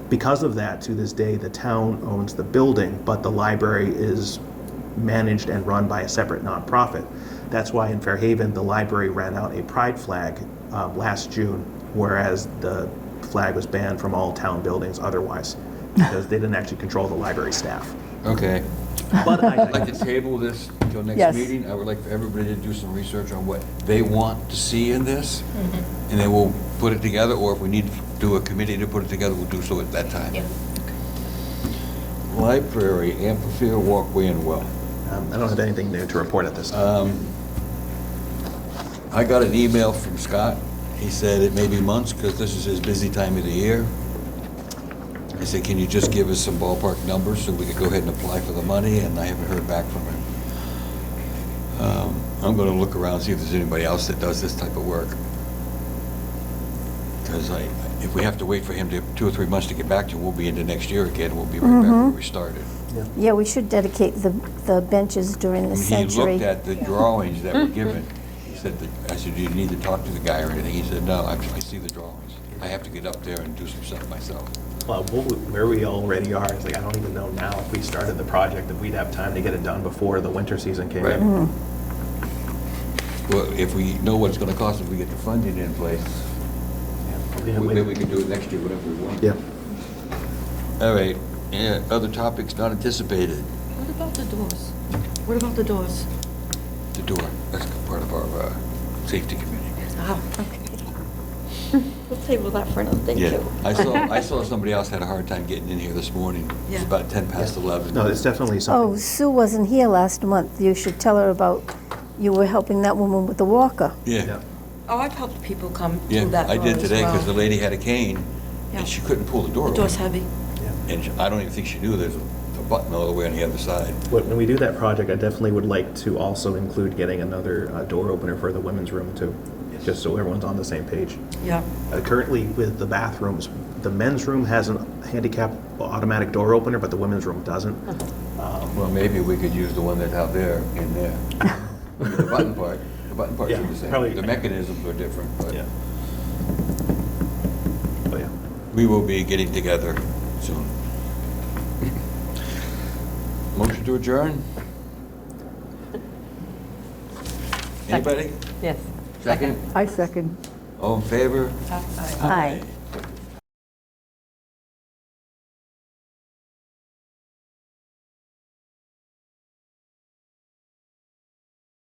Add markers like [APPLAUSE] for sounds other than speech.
Because of that, to this day, the town owns the building, but the library is managed and run by a separate nonprofit. That's why in Fairhaven, the library ran out a pride flag um, last June, whereas the flag was banned from all town buildings otherwise, because they didn't actually control the library staff. Okay. But I I'd [LAUGHS] like to table this until Yes. next meeting. I would like for everybody to do some research on what they want to see in this, and then we'll put it together, or if we need to do a committee to put it together, we'll do so at that time. Yeah. Library, amphitheater, walkway, and well. Um, I don't have anything new to report at this time. Um, I got an email from Scott. He said it may be months, because this is his busy time of the year. I said, can you just give us some ballpark numbers so we could go ahead and apply for the money? And I haven't heard back from him. Um, I'm going to look around, see if there's anybody else that does this type of work. Because I, if we have to wait for him to, two or three months to get back to, we'll be into next year again. We'll be right back where we started. Yeah, we should dedicate the, the benches during the When he century. looked at the drawings that were given, he said, that- I said, do you need to talk to the guy or anything? He said, no, I I see the drawings. I have to get up there and do some stuff myself. Well, what we- where we already are, is like, I don't even know now if we started the project, if we'd have time to get it done before the winter season came Right. in. Well, if we know what it's gonna cost, if we get the funding in place, Yeah, then we- we can do it next year, whatever we want. Yeah. All right, yeah, other topics not anticipated. What about the doors? What about the doors? The door, that's part of our, uh, safety committee. Oh, okay. We'll table that for another day, Yeah, too. I saw, I saw somebody else had a hard time getting in here this morning. It was Yeah. about ten past eleven. No, it's definitely Oh, something. Sue wasn't here last month. You should tell her about, you were helping that woman with the walker. Yeah. Oh, I've helped people come Yeah, through that I door did as today because the well. lady had a cane Yeah. and she couldn't pull the door The open. door's heavy. Yeah. And she- I don't even think she knew there's a a button all the way on the other side. When we do that project, I definitely would like to also include getting another uh, door opener for the women's room too, just so everyone's on the same page. Yeah. Uh, Currently, with the bathrooms, the men's room has a handicap automatic door opener, but the women's room doesn't. Well, maybe we could use the one that's out there in [LAUGHS] there. I mean, The button part, the button part's Yeah, are the probably- same. The mechanisms are different, but Oh, yeah. we will be getting together soon. Motion to adjourn? Anybody? Yes. Second? I second. All in favor? Aye.